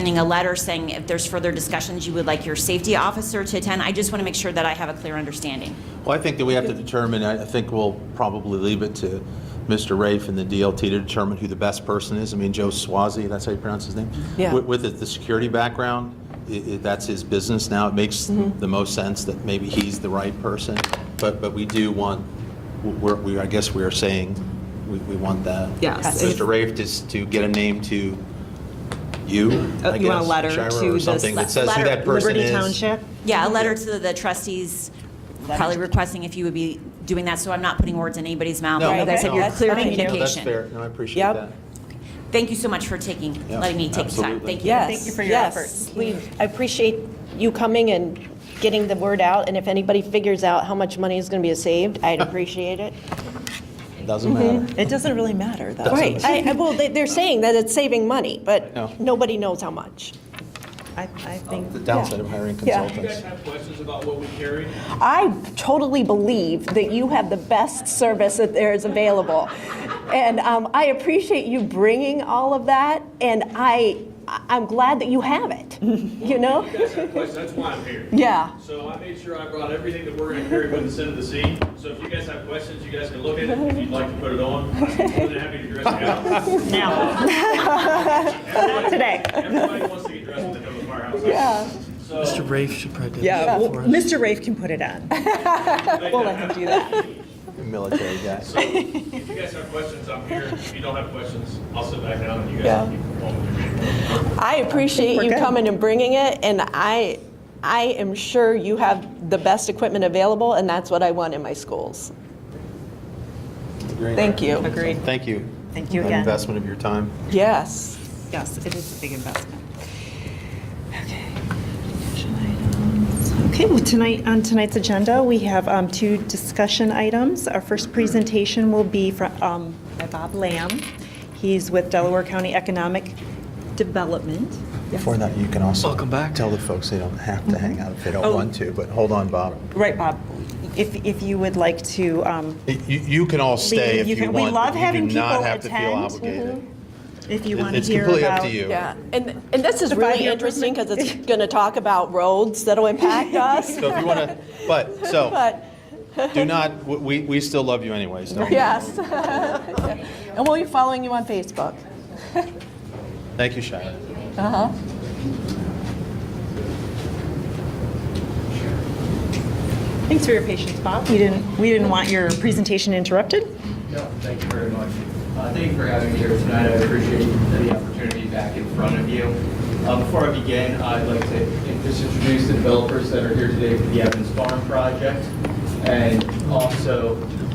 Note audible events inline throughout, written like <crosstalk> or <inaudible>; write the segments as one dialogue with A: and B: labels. A: sending a letter saying if there's further discussions, you would like your safety officer to attend. I just want to make sure that I have a clear understanding.
B: Well, I think that we have to determine, I I think we'll probably leave it to Mr. Rafe and the DLT to determine who the best person is. I mean, Joe Swazi, that's how you pronounce his name?
C: Yeah.
B: With- With the- the security background, i- i- that's his business now. It makes
C: Mm-hmm.
B: the most sense that maybe he's the right person. But, but we do want, we're, we- I guess we are saying, we, we want that.
C: Yes.
B: Mr. Rafe just to get a name to you, I
C: Uh, you want a
B: guess,
C: letter
B: Shira,
C: to
B: Or
C: the
B: something that says who
A: letter-
B: that person
C: Liberty
B: is.
C: Township?
A: Yeah, a letter to the trustees, probably requesting if you would be doing that, so I'm not putting words in anybody's mouth.
B: No,
A: Like I said,
B: no,
A: your
B: that's
A: clear
C: fine. Thank you.
B: No, that's
A: communication.
B: fair. No, I appreciate
C: Yep.
B: that.
A: Thank you so much for taking,
B: Yeah,
A: letting me take the time.
B: absolutely.
A: Thank you.
C: Yes.
D: Thank you for your
C: yes.
D: efforts.
C: We-
E: I appreciate you coming and getting the word out, and if anybody figures out how much money is going to be saved, I'd appreciate it.
B: Doesn't matter.
D: It doesn't really matter, though.
E: Right, I, I- well, they- they're saying that it's saving money,
B: No.
E: but nobody knows how much.
D: I, I think,
B: The downside of hiring
E: Yeah.
F: Do you guys
B: consultants.
F: have questions about what we carry?
E: I totally believe that you have the best service that there is available. And um, I appreciate you bringing all of that, and I, I- I'm glad that you have it, you know?
F: You guys have questions, that's why I'm here.
E: Yeah.
F: So I made sure I brought everything that we're gonna carry with us into the seat. So if you guys have questions, you guys can look at it. If you'd like to put it on, I'm more than happy to dress it out. Now.
D: <laughs> today.
F: Everybody wants to get dressed when they come to the firehouse. Yeah. So,
G: Mr. Rafe should probably do
D: yeah,
G: that
D: well,
G: for us.
D: Mr. Rafe can put it on. We'll let him do that.
B: Military guy.
F: so if you guys have questions, I'm here. If you don't have questions, I'll sit back down and you
D: Yeah.
F: guys can keep going with your meeting.
E: I appreciate
D: we're
E: you
D: good.
E: coming and bringing it, and I, I am sure you have the best equipment available, and that's what I want in my schools.
D: Thank you.
C: Agreed.
B: Thank you.
D: Thank you
B: An
D: again.
B: Investment of your time.
C: Yes.
D: Yes, it is a big investment. Okay. Action items. Okay, well, tonight, on tonight's agenda, we have um, two discussion items. Our first presentation will be from, um, by Bob Lamb. He's with Delaware County Economic Development.
B: Before that, you can also.
G: Welcome back.
B: Tell the folks they don't have to hang out if they don't
D: Oh.
B: want to, but hold on, Bob.
D: Right, Bob, if, if you would like to, um,
B: You, you can all stay
D: Leave.
B: if
D: You
B: you
D: can- we
B: want.
D: love
B: but
D: having
B: You do not
D: people
B: have to feel
D: attend.
B: obligated.
D: if you want to
B: It's
D: hear
B: completely up
D: about.
B: to you.
E: Yeah, and, and this is
D: The
E: really
D: five-year
E: interesting, because it's <laughs> gonna talk about roads that'll <laughs> impact us,
B: So if you want to, but,
D: <laughs>
B: so,
E: but,
B: do not, we, we still love you anyways, don't we?
E: yes. And we'll be following you on Facebook.
B: Thank you, Shira.
D: Thanks for your patience, Bob. We didn't, we didn't want your presentation interrupted.
H: No, thank you very much. Uh, Thank you for having me here tonight. I appreciate the opportunity back in front of you. Uh, Before I begin, I'd like to just introduce the developers that are here today for the Evans Farm project, and also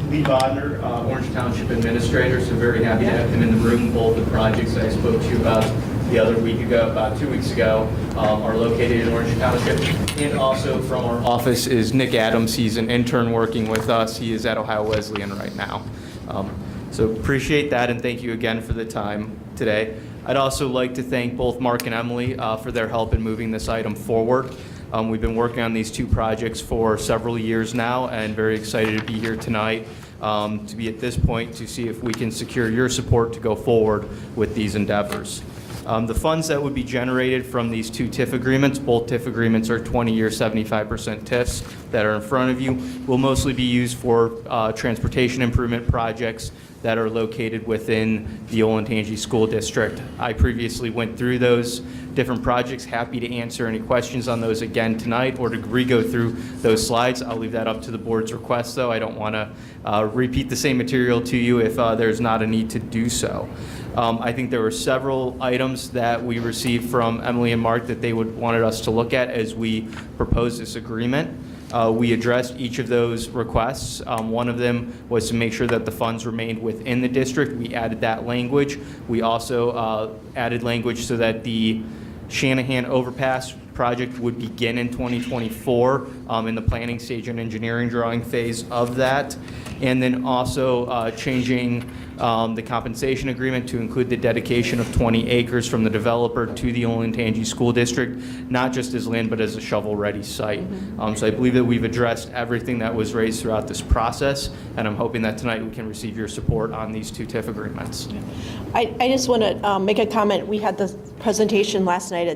H: Lee Bodnar, uh, Orange Township Administrator, so very happy to have him in the room. Both the projects I spoke to you about the other week ago, about two weeks ago, um, are located in Orange Township. And also from our office is Nick Adams. He's an intern working with us. He is at Ohio Wesleyan right now. Um, So appreciate that, and thank you again for the time today. I'd also like to thank both Mark and Emily uh, for their help in moving this item forward. Um, We've been working on these two projects for several years now, and very excited to be here tonight, um, to be at this point, to see if we can secure your support to go forward with these endeavors. Um, The funds that would be generated from these two TIF agreements, both TIF agreements are 20-year, 75% TIFs that are in front of you, will mostly be used for uh, transportation improvement projects that are located within the Olentangy School District. I previously went through those different projects, happy to answer any questions on those again tonight or to re-go through those slides. I'll leave that up to the board's request, though. I don't want to repeat the same material to you if uh, there's not a need to do so. Um, I think there were several items that we received from Emily and Mark that they would, wanted us to look at as we proposed this agreement. Uh, We addressed each of those requests. Um, One of them was to make sure that the funds remained within the district. We added that language. We also uh, added language so that the Shanahan Overpass project would begin in 2024, um, in the planning stage and engineering drawing phase of that. And then also uh, changing um, the compensation agreement to include the dedication of 20 acres from the developer to the Olentangy School District, not just as land, but as a shovel-ready site. Um, So I believe that we've addressed everything that was raised throughout this process, and I'm hoping that tonight we can receive your support on these two TIF agreements.
E: um, I, I just want to make a comment. We had the presentation last night at